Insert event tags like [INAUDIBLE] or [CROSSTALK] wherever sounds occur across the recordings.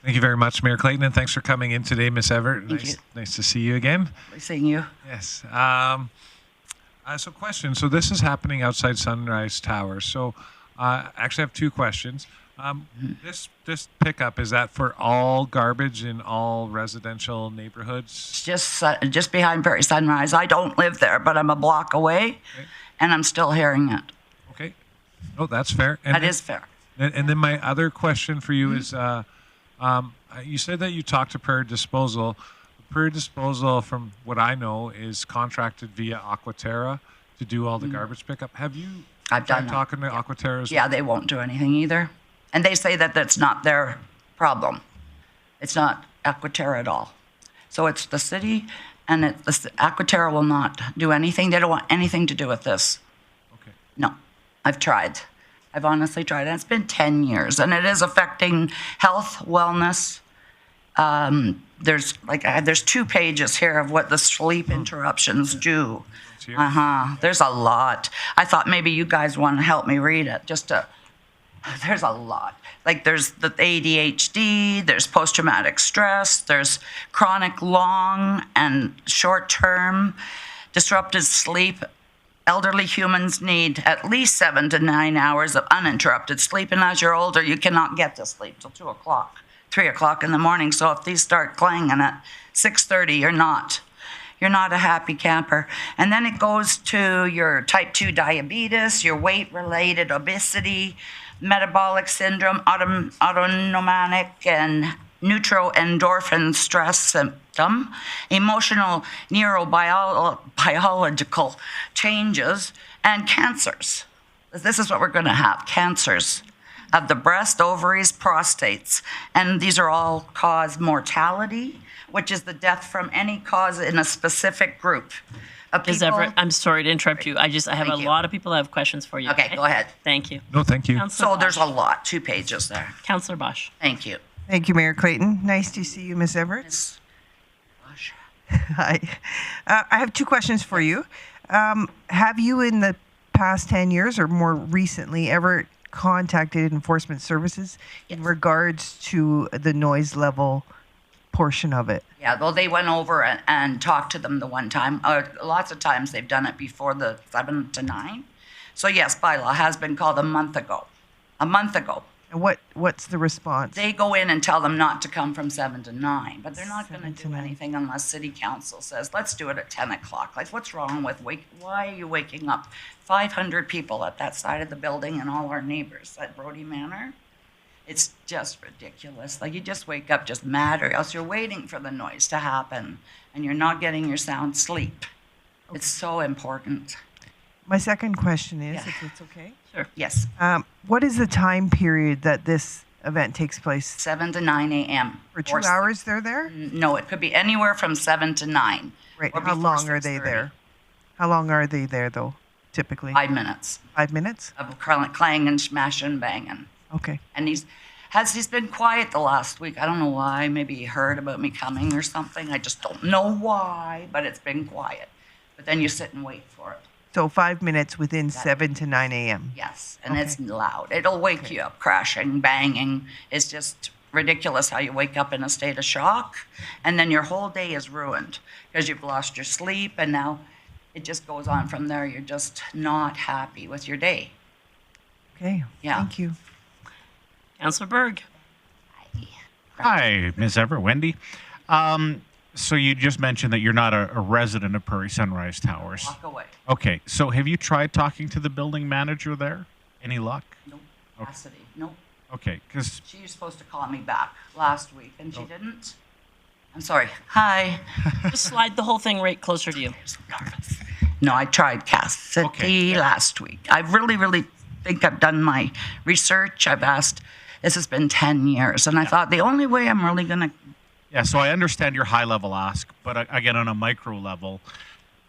Thank you very much, Mayor Clayton, and thanks for coming in today, Miss Everett. Thank nice, you. nice to see you again. seeing you. Yes. Um, uh, so, question. So, this is happening outside Sunrise Tower. So, uh, actually, I have two questions. Um, this this pickup is that for all garbage in all residential neighborhoods? It's just su- just behind Prairie Sunrise. I don't live there, but I'm a block away, and I'm still hearing it. Okay. Oh, that's fair. And That then- is fair. And, and then my other question for you is, uh, um, uh, you said that you talked to Prairie Disposal. Prairie Disposal, from what I know, is contracted via Aquaterra to do all the garbage pickup. Have you? Mm. I've done tried that. talking to Aquaterra. as Yeah, they won't do anything either, and they say that that's not their problem. It's not Aquaterra at all. So it's the city, and it, the c- Aquaterra will not do anything. They don't want anything to do with this. well? Okay. No, I've tried. I've honestly tried, and it's been 10 years, and it is affecting health, wellness. Um, there's like I, there's two pages here of what the sleep interruptions do. here. Uh huh. There's a lot. I thought maybe you guys want to help me read it. Just to, [SIGHS] there's a lot. Like there's the ADHD. There's post-traumatic stress. There's chronic long and short-term disrupted sleep Elderly humans need at least seven to nine hours of uninterrupted sleep, and as you're older, you cannot get to sleep till two o'clock, three o'clock in the morning. So if these start clanging at six thirty, you're not, you're not a happy camper. And then it goes to your type two diabetes, your weight-related obesity, metabolic syndrome, autom- autonomic and neuroendorphin stress symptom, emotional neurobiological changes, and cancers. This is what we're going to have cancers of the breast, ovaries, prostates. And these are all cause mortality, which is the death from any cause in a specific group of Ms. people. Everett, I'm sorry to interrupt you. I just, I have Thank a you. lot of people that have questions for you. Okay, go ahead. Thank you. No, thank you. So Councillor there's a Bosch. lot, two pages there. Councillor Bosch. Thank you. Thank you, Mayor Clayton. Nice to see you, Ms. Everett. Hi. Uh, I have two questions for you. Um, have you, in the past 10 years or more recently, ever contacted Enforcement Services in regards to the noise level portion of it? Yeah, well, they went over and, and talked to them the one time. Uh, lots of times they've done it before the seven to nine. So yes, bylaw has been called a month ago. A month ago. And what, what's the response? They go in and tell them not to come from seven to nine, but they're not gonna Seven to do nine. anything unless city council says, let's do it at ten o'clock. Like, what's wrong with wake, why are you waking up five hundred people at that side of the building and all our neighbors at Brody Manor? It's just ridiculous. Like you just wake up just mad, or else you're waiting for the noise to happen, and you're not getting your sound sleep. It's so important. My second question is, Yeah. if it's okay, Yes, um, what is the time period that this event takes place? seven to nine a.m. For two or six- hours, they're there? No, it could be anywhere from seven to nine. Right. Mm, or How before long are they 6:30. there? How long are they there, though, typically? Five minutes Five minutes? of cl- clang and smash and banging. Okay. And he's has he's been quiet the last week. I don't know why. Maybe he heard about me coming or something. I just don't know why, but it's been quiet. But then you sit and wait for it. So five minutes within 7 to 9 a.m. Yes, and it's loud. It'll wake you up crashing, banging. It's just ridiculous how you wake up in a state of shock and then your whole day is ruined because you've lost your sleep and now it just goes on from there. You're just not happy with your day. Okay. Yeah. Thank you. Councillor Berg. Hi, Ms. Everett, Wendy. Um, so you just mentioned that you're not a, a resident of Prairie Sunrise Towers. Walk away. Okay, so have you tried talking to the building manager there? Any luck? Nope. Cassidy. Nope. Okay, because She was supposed to call me back last week and she didn't. I'm sorry. Hi. [LAUGHS] Just slide the whole thing right closer to you. nervous. No, I tried Cassidy Okay. last week. I really, really think I've done my research. I've asked, this has been 10 years, and I thought the only way I'm really going to, yeah, so I understand your high level ask, but uh, again, on a micro level,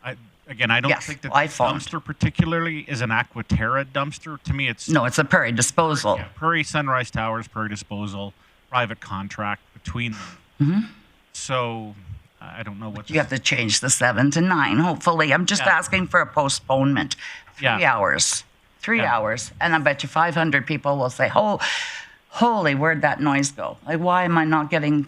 I, again, I don't Yes, think that I phoned. dumpster particularly is an Aquaterra dumpster. To me, it's no, it's a prairie disposal. Yeah, Prairie Sunrise Towers, Prairie Disposal, private contract between them. Mm-hmm. So I I don't know what You have to change the seven to nine, hopefully. I'm just Yeah. asking for a postponement. Three Yeah. hours. Three Yeah. hours. And I bet you 500 people will say, oh, holy, where'd that noise go? Like, why am I not getting